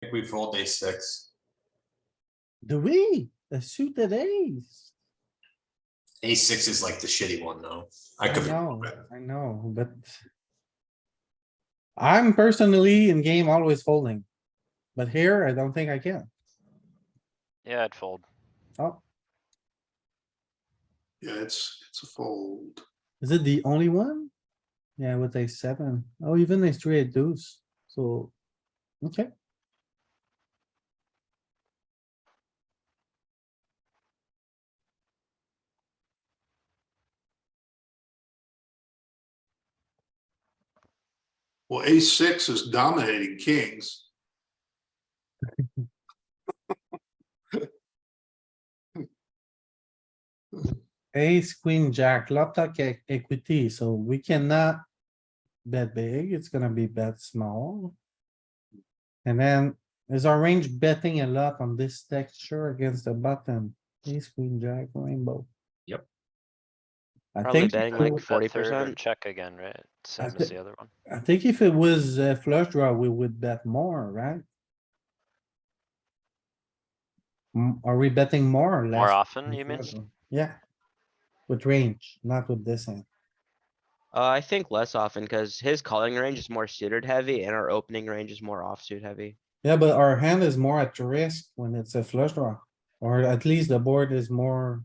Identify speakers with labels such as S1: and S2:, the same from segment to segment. S1: think we fold a six,
S2: Do we? A suited ace?
S1: a six is like the shitty one, though. I
S2: I
S1: could, be
S2: know,
S1: wrong.
S2: I know, but. I'm personally in game always folding. But here, I don't think I can.
S3: Yeah, I'd fold.
S2: Oh,
S4: Yeah, it's, it's a fold.
S2: is it the only one? Yeah, with a seven. Oh, even a three eight deuce, so. Okay,
S4: Well, ace six is dominating kings.
S2: ace, queen, jack, laptop equity, so we cannot. Bet big, it's gonna be bet small. And then is our range betting a lot on this texture against the button? Ace, queen, jack, rainbow.
S1: Yep.
S2: I
S3: Probably
S2: think,
S5: betting
S2: so.
S5: like
S3: Bet third or
S5: 40%.
S3: Check again, right? Same
S2: thi-
S3: as the other one.
S2: I think if it was a flush draw, we would bet more, right? Mm, Are we betting more or less?
S3: More often,
S2: with
S3: you mean?
S2: flush draw? Yeah. With range, not with this hand.
S5: Uh, I think less often because his calling range is more suited heavy and our opening range is more offsuit heavy.
S2: Yeah, but our hand is more at risk when it's a flush draw, or at least the board is more.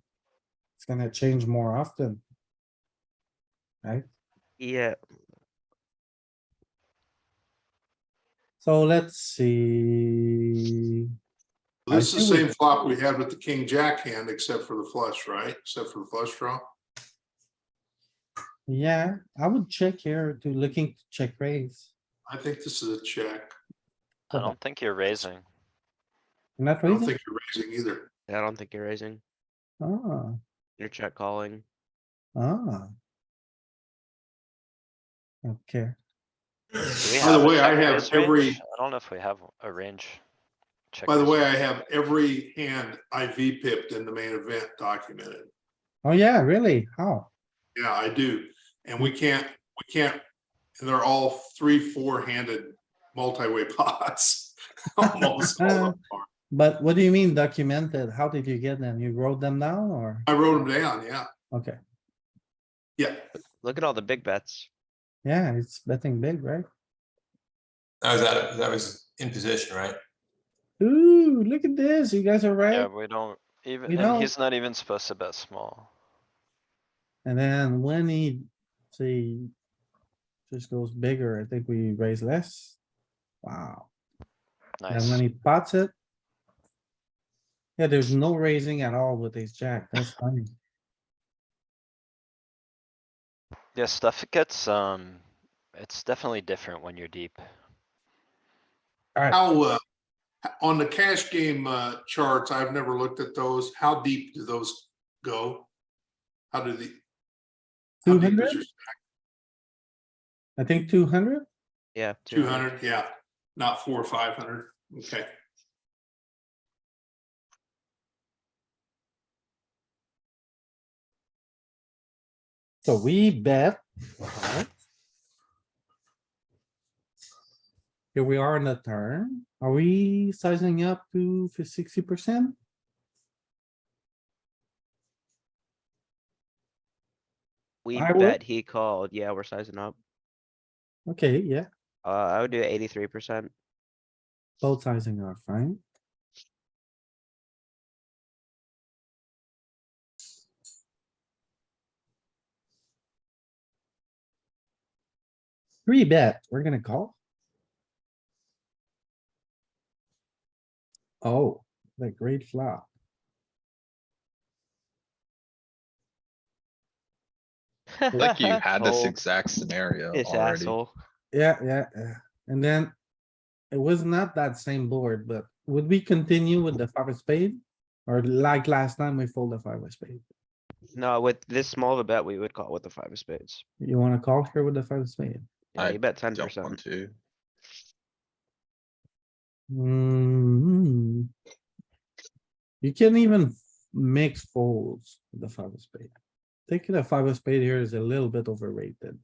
S2: It's gonna change more often.
S5: Yeah,
S2: So let's see. I
S4: This is the
S2: see what-
S4: same flop we had with the king jack hand, except for the flush, right? Except for the flush draw.
S2: Yeah, I would check here to looking to check raise.
S4: I think this is a check.
S3: I
S2: Okay.
S3: don't think you're raising.
S2: Not
S4: I don't
S2: raising.
S4: think you're raising either.
S5: I don't think you're raising.
S2: Ah,
S5: You're check calling.
S2: ah. Okay,
S3: Do we
S4: By the
S3: have a
S4: way, I
S3: check
S4: have
S3: raise range?
S4: every-
S3: I don't know if we have a range. check
S4: By the
S3: raise
S4: way,
S3: range.
S4: I have every hand IV pipped in the main event documented.
S2: oh yeah, really? How?
S4: Yeah, I do. And we can't, we can't, and they're all three, four handed multi-way pots. Almost
S2: Uh-huh.
S4: all of them are.
S2: But what do you mean documented? How did you get them? You wrote them down or?
S4: I wrote them down, yeah,
S2: Okay,
S4: yeah.
S5: Look at all the big bets.
S2: yeah, it's betting big, right?
S1: that was out of, that was in position, right?
S2: Ooh, look at this. You guys are
S3: Yeah,
S2: right.
S3: we don't
S2: We
S3: even, and
S2: don't-
S3: he's not even supposed to bet small.
S2: And then when he, see, just goes bigger, I think we raise less. Wow. And when
S3: Nice.
S2: he pots it. Yeah, there's no raising at all with ace jack. That's funny.
S3: Yeah, stuff gets, um, it's definitely different when you're deep.
S2: Alright,
S4: How, uh, on the cash game, uh, charts, I've never looked at those. How deep do those go? How do the? how
S2: two
S4: deep is
S2: hundred?
S4: your-
S2: I think two hundred?
S5: Yeah. 200.
S4: 200, yeah, not four or 500, okay.
S2: So we bet. alright. Here we are on the turn. Are we sizing up to sixty percent?
S5: We
S2: I would-
S5: bet he called. Yeah, we're sizing up.
S2: Okay, yeah,
S5: Uh, I would do eighty-three percent.
S2: both sizing are fine. Three bet, we're gonna call. Oh, the great flop.
S6: Like you had this exact scenario
S5: This
S6: already.
S5: asshole.
S2: Yeah, yeah, yeah. And then it was not that same board, but would we continue with the five of spade? Or like last time we fold the five of spade?
S5: No, with this small of a bet, we would call with the five of spades.
S2: You wanna call here with the five of spade?
S5: Yeah,
S6: I
S5: you bet ten
S6: Jump on
S5: percent.
S6: two.
S2: Hmm. You can even mix folds with the five of spade. Taking the five of spade here is a little bit overrated.